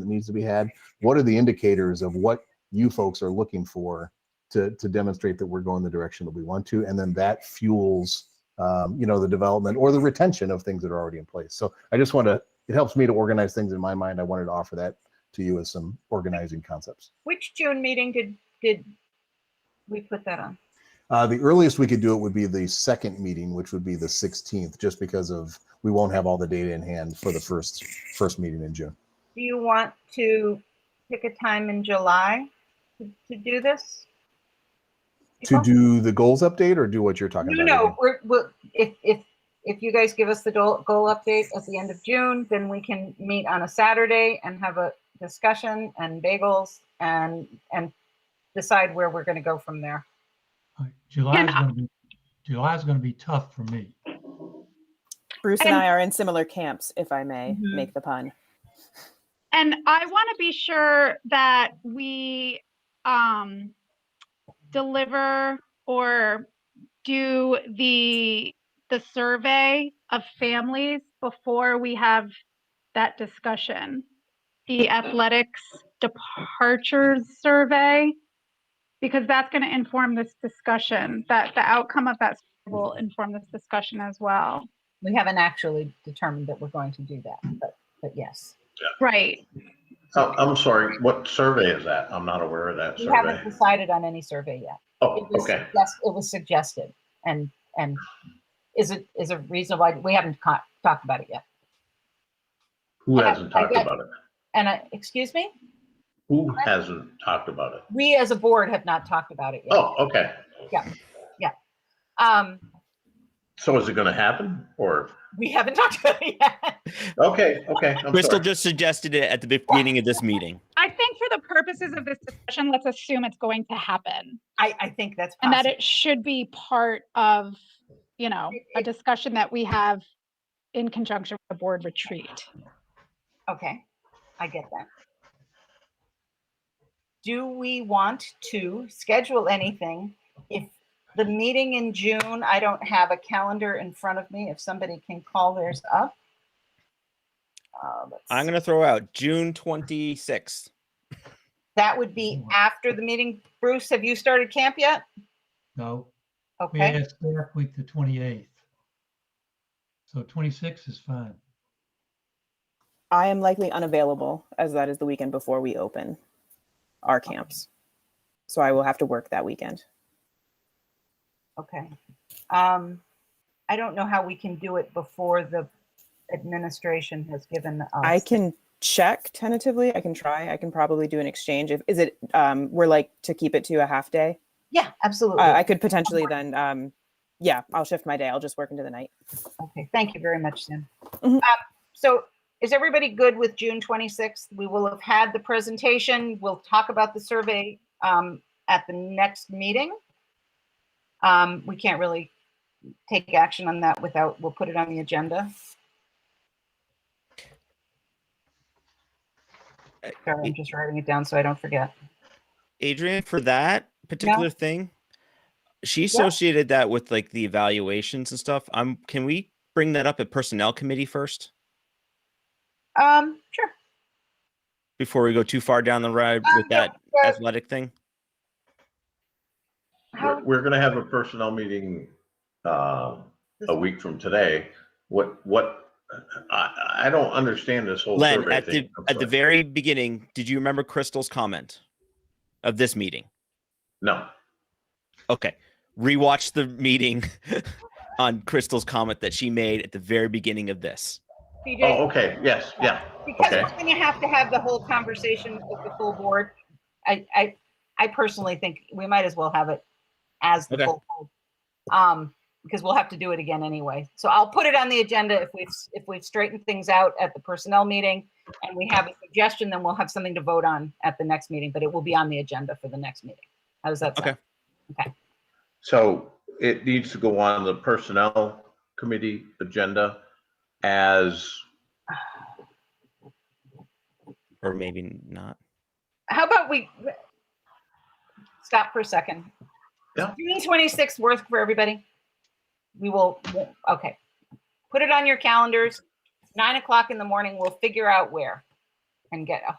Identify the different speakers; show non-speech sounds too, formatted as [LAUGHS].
Speaker 1: that needs to be had? What are the indicators of what you folks are looking for to, to demonstrate that we're going the direction that we want to? And then that fuels, um, you know, the development or the retention of things that are already in place. So I just want to, it helps me to organize things in my mind. I wanted to offer that to you as some organizing concepts.
Speaker 2: Which June meeting did, did we put that on?
Speaker 1: Uh, the earliest we could do it would be the second meeting, which would be the 16th, just because of, we won't have all the data in hand for the first, first meeting in June.
Speaker 2: Do you want to pick a time in July to to do this?
Speaker 1: To do the goals update or do what you're talking
Speaker 2: No,
Speaker 1: about?
Speaker 2: no,
Speaker 1: Adrian?
Speaker 2: we're, we're, if, if, if you guys give us the goal, goal update at the end of June, then we can meet on a Saturday and have a discussion and bagels and, and decide where we're gonna go from there.
Speaker 3: Like, July's gonna be, July's gonna be tough for me.
Speaker 4: Bruce and
Speaker 5: And-
Speaker 4: I are in similar camps, if I may
Speaker 2: Mhm.
Speaker 4: make the pun.
Speaker 5: And I want to be sure that we um, deliver or do the the survey of families before we have that discussion. The athletics departures survey, because that's going to inform this discussion. That the outcome of that will inform this discussion as well.
Speaker 2: We haven't actually determined that we're going to do that, but, but yes.
Speaker 5: Right.
Speaker 6: Oh, I'm sorry, what survey is that? I'm not aware of that
Speaker 2: We haven't
Speaker 6: survey.
Speaker 2: decided on any survey yet.
Speaker 6: Oh,
Speaker 2: It was
Speaker 6: okay.
Speaker 2: Yes, it was suggested and, and is it, is a reason why, we haven't co- talked about it yet.
Speaker 6: Who
Speaker 2: I-
Speaker 6: hasn't
Speaker 2: I
Speaker 6: talked
Speaker 2: get-
Speaker 6: about it?
Speaker 2: And I, excuse me,
Speaker 6: Who hasn't talked about it?
Speaker 2: we as a board have not talked about it yet.
Speaker 6: Oh, okay.
Speaker 2: Um,
Speaker 6: So is it going to happen or?
Speaker 2: we haven't [LAUGHS] talked about it yet.
Speaker 6: Okay, okay. I'm
Speaker 7: Crystal
Speaker 6: sorry.
Speaker 7: just suggested it at the beginning of this meeting.
Speaker 5: I think for the purposes of this discussion, let's assume it's going to happen
Speaker 2: I, I think that's
Speaker 5: and that
Speaker 2: possible.
Speaker 5: it should be part of, you know, a
Speaker 2: It-
Speaker 5: discussion that we have in conjunction with a board retreat.
Speaker 2: Okay, I get that. Do we want to schedule anything? If the meeting in June, I don't have a calendar in front of me, if somebody can call theirs up. Uh, let's
Speaker 7: I'm
Speaker 2: see.
Speaker 7: gonna throw out June 26th.
Speaker 2: That would be after the meeting. Bruce, have you started camp yet?
Speaker 3: No, we
Speaker 2: Okay,
Speaker 3: had staff week the twenty-eighth. So twenty-six is fine.
Speaker 4: I am likely unavailable as that is the weekend before we open our camps. So I will have to work that weekend.
Speaker 2: okay. Um, I don't know how we can do it before the administration has given us.
Speaker 4: I can check tentatively. I can try. I can probably do an exchange. If is it um we're like to keep it to a half day.
Speaker 2: Oh, Yeah, absolutely.
Speaker 4: Uh, I could potentially then um yeah, I'll shift my day. I'll just work into the night.
Speaker 2: Okay, thank you very much, Sam.
Speaker 4: Mhm.
Speaker 2: Um, So is everybody good with June 26th? We will have had the presentation. We'll talk about the survey um, at the next meeting. Um, We can't really take action on that without, we'll put it on the agenda.
Speaker 7: Uh,
Speaker 2: Sorry, I'm just writing it down so I don't forget.
Speaker 7: Adrian, for that particular thing, she associated that with like the evaluations and stuff. Um, can we bring that up at personnel committee first
Speaker 2: Um, Sure.
Speaker 7: before we go too far down the road
Speaker 2: Um,
Speaker 7: with that
Speaker 2: yeah,
Speaker 7: athletic thing?
Speaker 2: How
Speaker 6: We're, we're going to have a personnel meeting um, a week from today. What, what, I, I don't understand this whole
Speaker 7: Len,
Speaker 6: survey
Speaker 7: at the
Speaker 6: thing. I'm
Speaker 7: at the
Speaker 6: sorry.
Speaker 7: very beginning, did you remember Crystal's comment of this meeting?
Speaker 6: No,
Speaker 7: Okay. Rewatch the meeting [LAUGHS] on Crystal's comment that she made at the very beginning of this.
Speaker 2: PJ?
Speaker 6: oh, okay, yes, yeah,
Speaker 2: Because
Speaker 6: Okay.
Speaker 2: we're gonna have to have the whole conversation with the full board. I, I, I personally think we might as well have it as the
Speaker 7: Okay.
Speaker 2: full board. Um, because we'll have to do it again anyway. So I'll put it on the agenda if we've, if we've straightened things out at the personnel meeting and we have a suggestion, then we'll have something to vote on at the next meeting, but it will be on the agenda for the next meeting. How does that sound?
Speaker 7: Okay.
Speaker 6: So it needs to go on the personnel committee agenda as,
Speaker 7: Or maybe not.
Speaker 2: How about we stop for a second? Is
Speaker 6: Yeah.
Speaker 2: June twenty-sixth worth for everybody? We will, okay. Put it on your calendars. Nine o'clock in the morning, we'll figure out where and get a hold.